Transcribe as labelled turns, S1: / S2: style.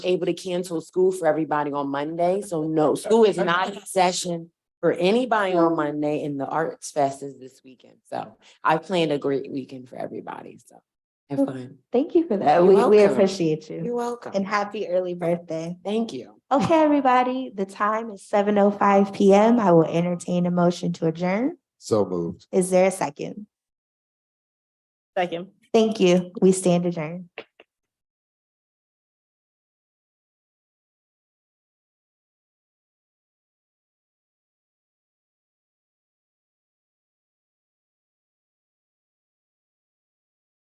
S1: able to cancel school for everybody on Monday, so no, school is not in session for anybody on Monday, and the Arts Fest is this weekend, so I planned a great weekend for everybody, so have fun.
S2: Thank you for that.
S1: You're
S2: We, we
S1: welcome.
S2: appreciate you.
S1: You're welcome.
S2: And happy early birthday.
S1: Thank you.
S2: Okay, everybody, the time is seven oh five PM. I will entertain a motion to adjourn.
S3: So moved.
S2: Is there a second?
S4: Second.
S2: Thank you. We stand adjourned.